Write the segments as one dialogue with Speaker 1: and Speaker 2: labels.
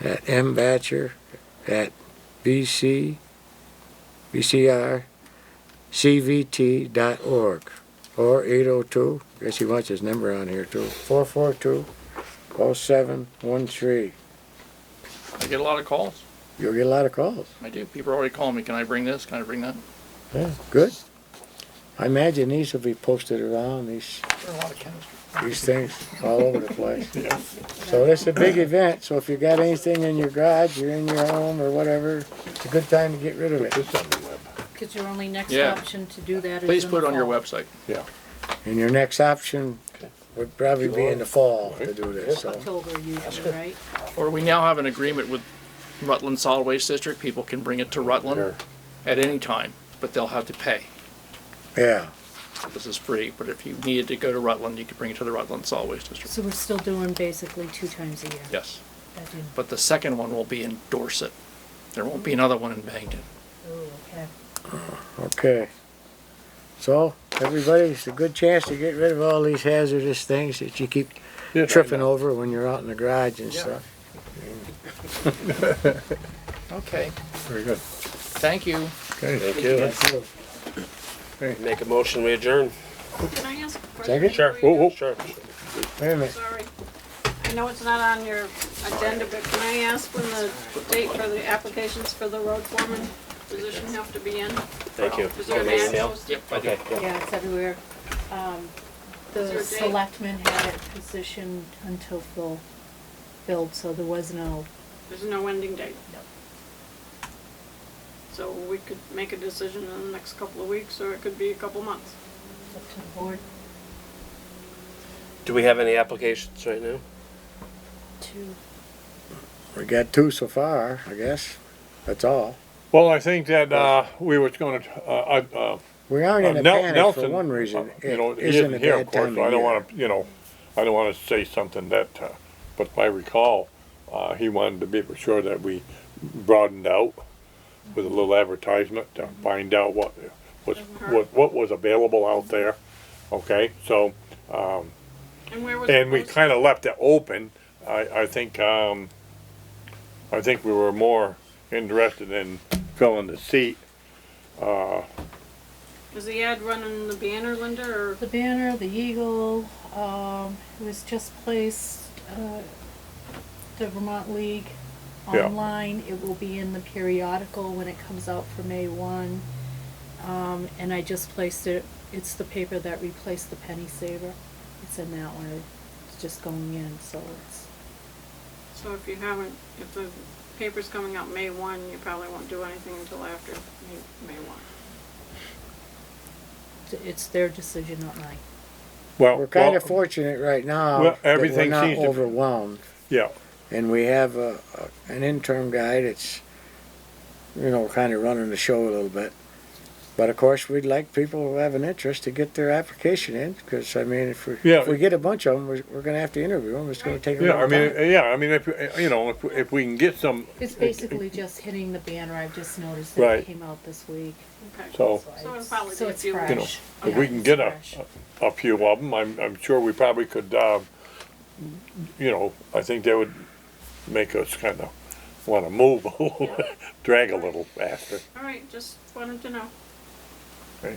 Speaker 1: at mbatcher at bc, bcr, cvt dot org. Or eight oh two, guess he wants his number on here too, four four two oh seven one three.
Speaker 2: I get a lot of calls.
Speaker 1: You'll get a lot of calls.
Speaker 2: I do. People are already calling me. Can I bring this? Can I bring that?
Speaker 1: Yeah, good. I imagine these will be posted around, these,
Speaker 2: There are a lot of chemistry.
Speaker 1: these things all over the place. So it's a big event, so if you got anything in your garage, or in your home, or whatever, it's a good time to get rid of it.
Speaker 3: Because your only next
Speaker 2: Yeah.
Speaker 3: option to do that is.
Speaker 2: Please
Speaker 3: in
Speaker 2: put it
Speaker 3: the
Speaker 2: on your
Speaker 3: fall.
Speaker 2: website.
Speaker 1: And your next option would probably be in the fall to do this, so.
Speaker 3: October usually, right?
Speaker 2: Or we now have an agreement with Rutland Solid Waste District. People can bring it to Rutland at any time, but they'll have to pay.
Speaker 1: Yeah,
Speaker 2: This is free, but if you needed to go to Rutland, you could bring it to the Rutland Solid Waste District.
Speaker 3: So we're still doing basically two times a year.
Speaker 2: Yes.
Speaker 3: That didn't-
Speaker 2: But the second one will be in Dorset. There won't be another one in Bangton.
Speaker 3: oh, okay.
Speaker 1: okay. So, everybody, it's a good chance to get rid of all these hazardous things that you keep tripping over when you're out in the garage and
Speaker 2: Yeah.
Speaker 1: stuff.
Speaker 2: Okay.
Speaker 4: Very good.
Speaker 2: Thank you.
Speaker 4: Okay.
Speaker 5: Thank you. Make a motion, we adjourn.
Speaker 6: Can I ask a
Speaker 1: Second?
Speaker 6: question?
Speaker 5: Sure.
Speaker 6: for you?
Speaker 5: Sure.
Speaker 1: Wait a minute.
Speaker 6: Sorry. I know it's not on your agenda, but can I ask when the date for the applications for the road foreman position have to be in?
Speaker 5: Thank you.
Speaker 6: Is there an
Speaker 5: Okay,
Speaker 6: ad
Speaker 5: Dale?
Speaker 6: posted?
Speaker 5: Okay.
Speaker 3: Yeah, it's everywhere. Um,
Speaker 6: Is there
Speaker 3: The
Speaker 6: a date?
Speaker 3: selectmen had it positioned until Phil filled, so there was no,
Speaker 6: There's no ending date?
Speaker 3: No.
Speaker 6: So we could make a decision in the next couple of weeks, or it could be a couple months.
Speaker 3: it's up to the board
Speaker 5: Do we have any applications right now?
Speaker 3: to.
Speaker 1: We got two so far, I guess. That's all.
Speaker 4: Well, I think that, uh, we was gonna, uh, uh, uh,
Speaker 1: We aren't in a
Speaker 4: Nel-
Speaker 1: panic
Speaker 4: Nelson,
Speaker 1: for one
Speaker 4: uh,
Speaker 1: reason.
Speaker 4: you know,
Speaker 1: It
Speaker 4: he
Speaker 1: isn't a
Speaker 4: isn't here,
Speaker 1: bad
Speaker 4: of course,
Speaker 1: time
Speaker 4: so I don't
Speaker 1: of
Speaker 4: wanna, you know, I don't wanna say something that, uh, but if I recall, uh, he wanted to be for sure that we broadened out with a little advertisement to find out what, was, what, what was available out there, okay? So,
Speaker 6: And where was it
Speaker 4: And we
Speaker 6: posted?
Speaker 4: kind of left it open. I, I think, um, I think we were more interested in filling the seat.
Speaker 6: Is the ad running the banner, Linda, or
Speaker 3: The banner, the eagle, um, it was just placed, uh, the Vermont League
Speaker 4: Yeah.
Speaker 3: online. It will be in the periodical when it comes out for May one. Um, and I just placed it, it's the paper that replaced the penny saver. It's in that one. It's just going in, so it's,
Speaker 6: so if you haven't, if the paper's coming out May one, you probably won't do anything until after May- May one.
Speaker 3: it's their decision, not mine.
Speaker 4: Well,
Speaker 1: We're kind
Speaker 4: well,
Speaker 1: of fortunate right now
Speaker 4: Well,
Speaker 1: that we're
Speaker 4: everything
Speaker 1: not
Speaker 4: seems to be-
Speaker 1: overwhelmed.
Speaker 4: Yeah,
Speaker 1: And we have a, a- an interim guy that's, you know, kind of running the show a little bit. But of course, we'd like people who have an interest to get their application in, because I mean, if we,
Speaker 4: Yeah.
Speaker 1: if we get a bunch of them, we're, we're gonna have to interview them. It's gonna take a
Speaker 4: yeah,
Speaker 1: long
Speaker 4: I mean,
Speaker 1: time.
Speaker 4: yeah, I mean, if, uh, you know, if, if we can get some,
Speaker 3: It's basically just hitting the banner. I've just noticed
Speaker 4: that it
Speaker 3: that
Speaker 4: Right.
Speaker 3: it came out this week.
Speaker 6: Okay.
Speaker 4: so,
Speaker 6: So it'll probably
Speaker 3: So
Speaker 6: be a
Speaker 3: it's
Speaker 6: few
Speaker 3: fresh.
Speaker 4: you know, if we can get a, a few of them, I'm, I'm sure we probably could, uh, you know, I think that would make us kind of want to move a little, drag a little faster.
Speaker 6: All right, just wanted to know.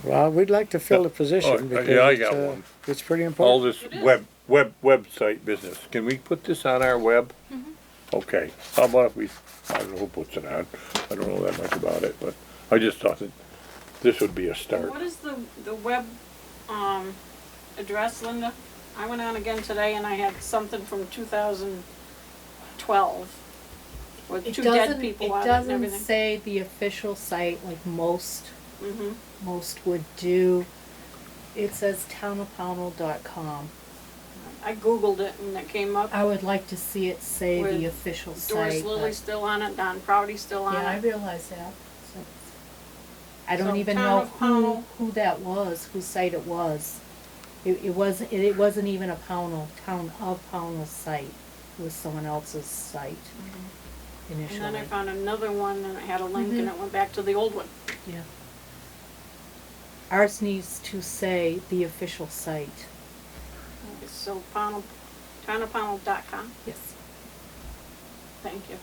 Speaker 1: Well, we'd like to fill the
Speaker 4: Oh,
Speaker 1: position
Speaker 4: yeah,
Speaker 1: because
Speaker 4: I
Speaker 1: it's,
Speaker 4: got
Speaker 1: uh,
Speaker 4: one.
Speaker 1: it's pretty
Speaker 4: all
Speaker 1: important.
Speaker 4: this
Speaker 6: It is.
Speaker 4: web, web, website business. Can we put this on our web?
Speaker 6: Mm-hmm.
Speaker 4: Okay, how about if we, I don't know who puts it on, I don't know that much about it, but I just thought that this would be a
Speaker 6: And
Speaker 4: start.
Speaker 6: What is the, the web, um, address, Linda? I went on again today and I had something from two thousand twelve with
Speaker 3: It
Speaker 6: two
Speaker 3: doesn't,
Speaker 6: dead
Speaker 3: it
Speaker 6: people on it and
Speaker 3: doesn't
Speaker 6: everything.
Speaker 3: say the official site like most,
Speaker 6: Mhm.
Speaker 3: most would do. It says townofpownell.com.
Speaker 6: I Googled it and it came up.
Speaker 3: I would like to see it say
Speaker 6: With
Speaker 3: the official
Speaker 6: Doris
Speaker 3: site.
Speaker 6: Lily's
Speaker 3: but-
Speaker 6: still on it, Don Proudy's still
Speaker 3: Yeah, I
Speaker 6: on it.
Speaker 3: realize that. So it's- I don't
Speaker 6: So
Speaker 3: even
Speaker 6: Town
Speaker 3: know
Speaker 6: of
Speaker 3: who,
Speaker 6: Pownell.
Speaker 3: who that was, whose site it was. It, it wasn't, it, it wasn't even a Pownell, Town of Pownell site. It was someone else's site initially.
Speaker 6: Mm-hmm.
Speaker 3: Mm-hmm.
Speaker 6: And then I found another one and it had a link and it went back to the old one.
Speaker 3: Yeah. Ours needs to say the official site.
Speaker 6: It's so Pownell, townofpownell.com.
Speaker 3: Yes.
Speaker 6: Thank you.